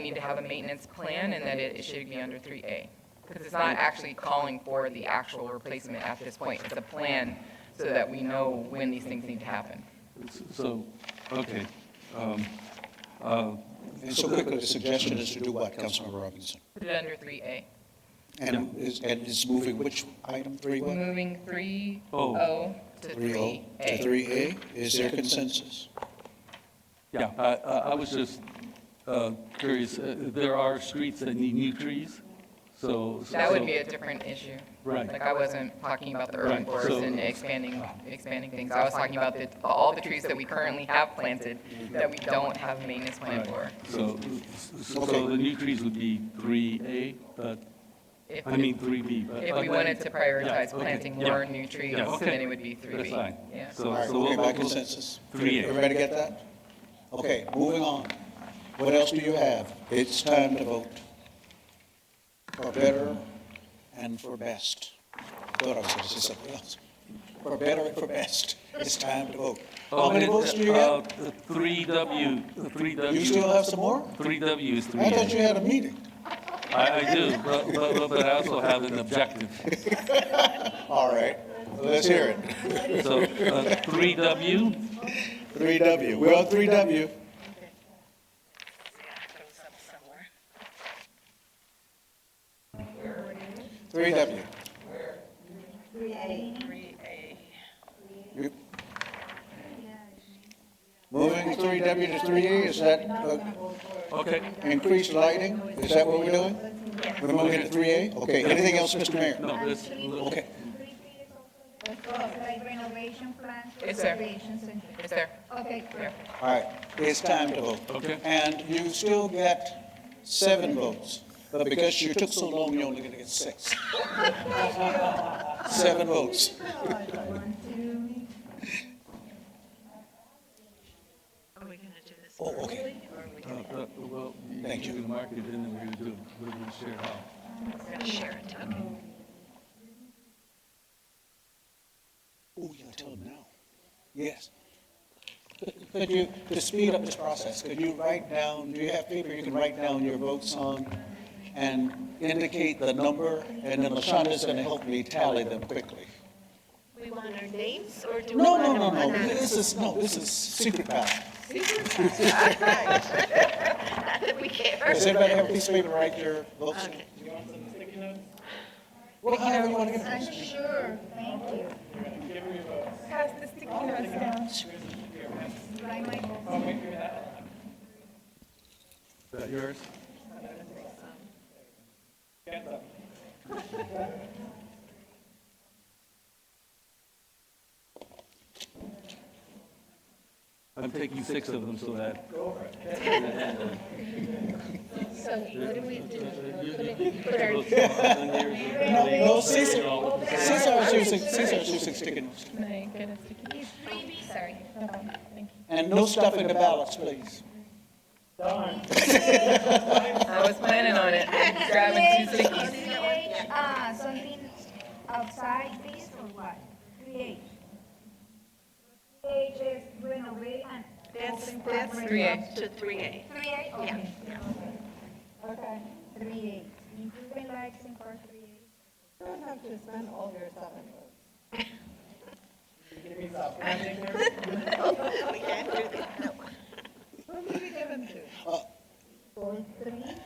need to have a maintenance plan and that it it should be under 3A. Because it's not actually calling for the actual replacement at this point. It's a plan so that we know when these things need to happen. So, okay, And so quickly, the suggestion is to do what, Councilmember Robinson? Put it under 3A. And is, and is moving which item, three We're what? moving 3O Oh. to Three O 3A. to three A? Is there consensus? yeah, I, I I was just uh, curious, Uh, there are streets that need new trees, so. so- That would be a different issue. Right. Like, I wasn't talking about the urban Right, forest so- and expanding, expanding things. I was talking about the, all the trees that we currently have planted that we don't have maintenance plan Right. for. So, so Okay. the new trees would be 3A, but, If- I mean, 3B. but- If but we then- wanted to prioritize Yeah, okay, planting yeah. more new trees, Yeah, okay. then it would be 3B. That's fine. Yeah. So- All right, so we'll- okay, by we'll- consensus? 3A. Everybody get that? Okay, moving on. What else do you have? It's time to vote. For better and for best. Thought I was gonna say something else. For better and for best, it's time to vote. How Oh, many it- votes do you uh, have? uh, 3W, 3W. You still have some more? 3W is 3A. I thought you had a meeting. I, I do, but, but, but I also have an objective. All right, let's hear it. So, uh, three W, Three W, we're on three W. Three W. Three A. Moving three W to three A, is that uh, okay. increased lighting? Is that what we're doing? We're moving to three A? Okay, anything else, Mr. Mayor? No, this, Okay, Like renovation plans? Yes, sir. Recreation center. Is there? Okay, great. all right, it's time to vote. okay, And you still get seven votes, but because you took so long, you're only gonna get six. Seven votes. One, two, Are we gonna do this? Oh, okay. Uh, uh, well, you Thank you you. can mark it in and we're gonna do, we're gonna share how. We're gonna share it, okay. Oh, you tell them now. Yes. Could you, to speed up this process, could you write down, do you have paper you can write down your votes on and indicate the number, and then LaShonda's gonna help me tally them quickly. We want our names, or do we No, want no, them no, no, anonymous? this is, no, this is secret ballot. Not that we care. Does everybody have a piece of paper to write your votes? Okay. Well, however you want to I'm get it. sure, thank you. Pass the sticky notes down. Right, Michael? Is that yours? I'm taking six of them so that. So what do we do? No, no, Cesar, Cesar is using, Cesar is using sticky notes. Sorry. And no stuff in the ballots, please. I was planning on it, grabbing two stickies. Create, uh, something outside this or what? Create. Create is renovate and. That's, open that's for Three A. up to 3A. Three A, okay. Okay, three A, improving lights in part three A. We can't do that, no.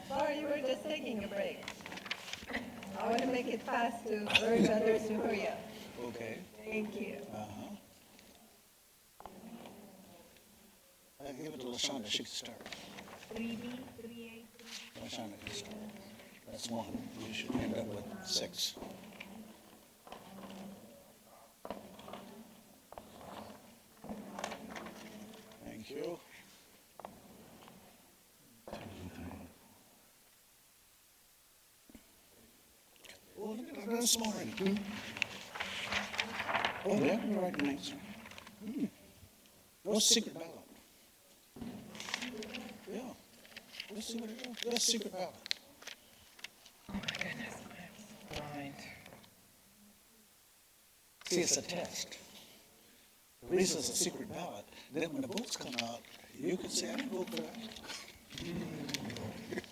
Sorry, you were just taking a break. I want to make it fast to urge others to hurry up. Okay. Thank you. I give it to LaShonda, she can start. Three B, three A, three LaShonda can start. That's one. You should end up with six. Thank you. Oh, look at that, small one. Oh, that would write an answer. Hmm. No secret ballot. Yeah. Let's see what it is. Let's see what ballot. Oh my goodness, I'm blind. See, it's a test. The reason it's a secret ballot, then when the votes come out, you can say, I didn't vote for that.